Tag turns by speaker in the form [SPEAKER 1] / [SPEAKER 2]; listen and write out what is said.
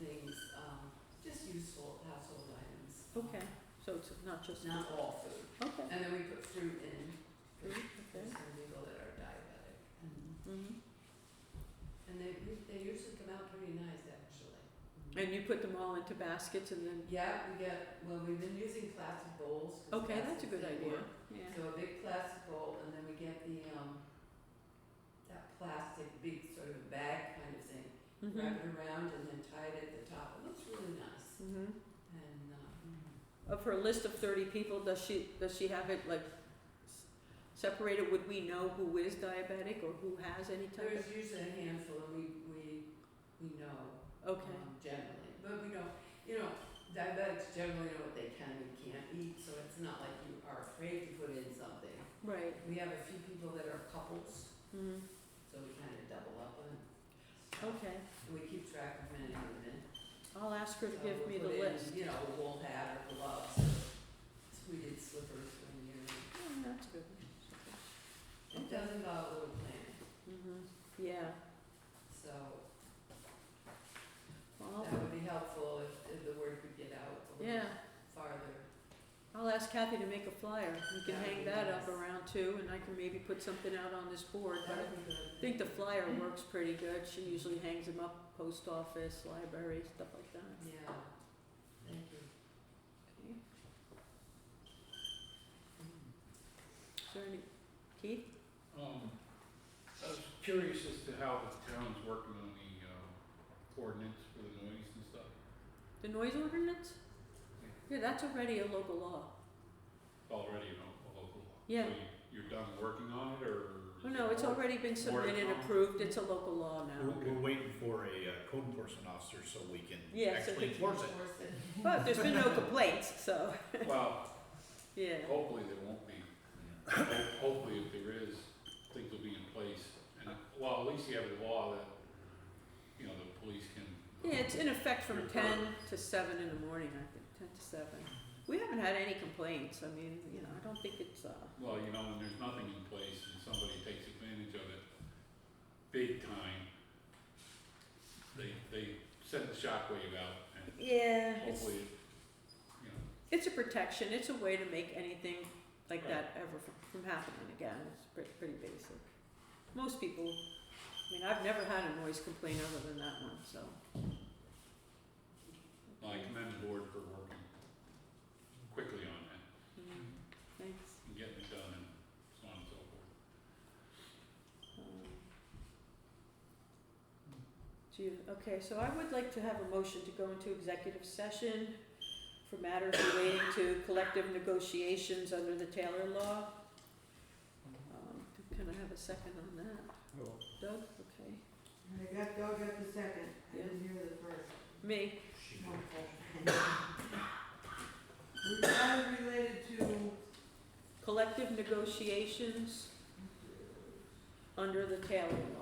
[SPEAKER 1] um,
[SPEAKER 2] Not just
[SPEAKER 1] not all food.
[SPEAKER 2] Okay.
[SPEAKER 1] And then we put fruit in,
[SPEAKER 2] Food,
[SPEAKER 1] for
[SPEAKER 2] Okay.
[SPEAKER 1] some people that are diabetic. And-
[SPEAKER 2] hmm
[SPEAKER 1] And they, they usually come out pretty nice, actually.
[SPEAKER 2] And you put them all into baskets and then,
[SPEAKER 1] Yeah, we get, well, we've been using plastic bowls. 'cause
[SPEAKER 2] okay, that's a
[SPEAKER 1] plastic's
[SPEAKER 2] good
[SPEAKER 1] in
[SPEAKER 2] idea.
[SPEAKER 1] work.
[SPEAKER 2] Yeah.
[SPEAKER 1] So a big plastic bowl, and then we get the, um, that plastic big sort of bag kind of thing,
[SPEAKER 2] Mm-hmm.
[SPEAKER 1] wrap it around and then tie it at the top. It looks really nice.
[SPEAKER 2] hmm
[SPEAKER 1] And, um,
[SPEAKER 2] Of her Uh, list of thirty people, does she, does she have it like s- separated? Would we know who is diabetic or who has any type
[SPEAKER 1] there's usually a handful, and we, we, we know
[SPEAKER 2] of? Okay,
[SPEAKER 1] um, generally. But we don't, you know, diabetics generally know what they can and can't eat, so it's not like you are afraid to put in something.
[SPEAKER 2] right.
[SPEAKER 1] We have a few people that are couples,
[SPEAKER 2] Mm.
[SPEAKER 1] so we kind of double up on. stuff.
[SPEAKER 2] Okay,
[SPEAKER 1] And we keep track of many of them.
[SPEAKER 2] I'll ask her to
[SPEAKER 1] So
[SPEAKER 2] give
[SPEAKER 1] we'll
[SPEAKER 2] me the
[SPEAKER 1] put in,
[SPEAKER 2] list.
[SPEAKER 1] You know, a wool hat or gloves, or tweeted slippers when you're,
[SPEAKER 2] Oh, that's good.
[SPEAKER 1] it does involve a little planning,
[SPEAKER 2] Mm-hmm, yeah.
[SPEAKER 1] so
[SPEAKER 2] Well, I'll-
[SPEAKER 1] that would be helpful if, if the word could get out a
[SPEAKER 2] Oh. Yeah,
[SPEAKER 1] little farther.
[SPEAKER 2] I'll ask Kathy to make a flyer. We can
[SPEAKER 1] That would
[SPEAKER 2] hang
[SPEAKER 1] be
[SPEAKER 2] that up
[SPEAKER 1] nice.
[SPEAKER 2] around too, and I can maybe put something out on this board, but
[SPEAKER 1] That would be good.
[SPEAKER 2] I think the flyer works pretty good. She usually hangs them up, post office, library, stuff like that.
[SPEAKER 1] Yeah, thank you.
[SPEAKER 2] Okay. Is there any, Keith?
[SPEAKER 3] Um, I was curious as to how the town's working on the, uh, ordinance for the noise and stuff.
[SPEAKER 2] The noise ordinance? Yeah, that's already a local law.
[SPEAKER 3] Already, you know, a local law.
[SPEAKER 2] Yeah.
[SPEAKER 3] So you- you're done working on it, or? is
[SPEAKER 2] Oh, no,
[SPEAKER 3] it
[SPEAKER 2] it's
[SPEAKER 3] more-
[SPEAKER 2] already been
[SPEAKER 3] more to
[SPEAKER 2] submitted,
[SPEAKER 3] come?
[SPEAKER 2] approved. It's a local law now.
[SPEAKER 3] Okay.
[SPEAKER 4] We're, we're waiting for a uh, code enforcement officer so we can
[SPEAKER 2] Yeah, so
[SPEAKER 4] actually
[SPEAKER 2] we
[SPEAKER 4] enforce it.
[SPEAKER 1] Enforce it.
[SPEAKER 2] But there's been no complaints, so,
[SPEAKER 3] Well,
[SPEAKER 2] yeah.
[SPEAKER 3] hopefully there won't be. Ho- Hopefully if there is, things will be in place. And, well, at least you have a law that, you know, the police can.
[SPEAKER 2] Yeah, it's in effect from
[SPEAKER 3] Your
[SPEAKER 2] ten to seven in the morning, I think, ten to seven. We haven't had any complaints, I mean, you know, I don't think it's, uh,
[SPEAKER 3] Well, you know, when there's nothing in place and somebody takes advantage of it big time, they, they send the shockwave out and
[SPEAKER 2] yeah, it's,
[SPEAKER 3] hopefully, you know,
[SPEAKER 2] it's a protection, it's a way to make anything like
[SPEAKER 3] Right.
[SPEAKER 2] that ever from, from happening again, it's pretty, pretty basic. Most people, I mean, I've never had a noise complaint other than that one, so.
[SPEAKER 3] I commend the board for working quickly on that
[SPEAKER 2] Mm, Thanks.
[SPEAKER 3] and getting it done and so on and so forth.
[SPEAKER 2] Um, Do you, okay, so I would like to have a motion to go into executive session for matters relating to collective negotiations under the Taylor Law. Um, Can I have a second on that? Doug, okay.
[SPEAKER 5] I got Doug at the second, I didn't hear the first.
[SPEAKER 2] Me,
[SPEAKER 5] We are related to,
[SPEAKER 2] collective negotiations under the Taylor Law.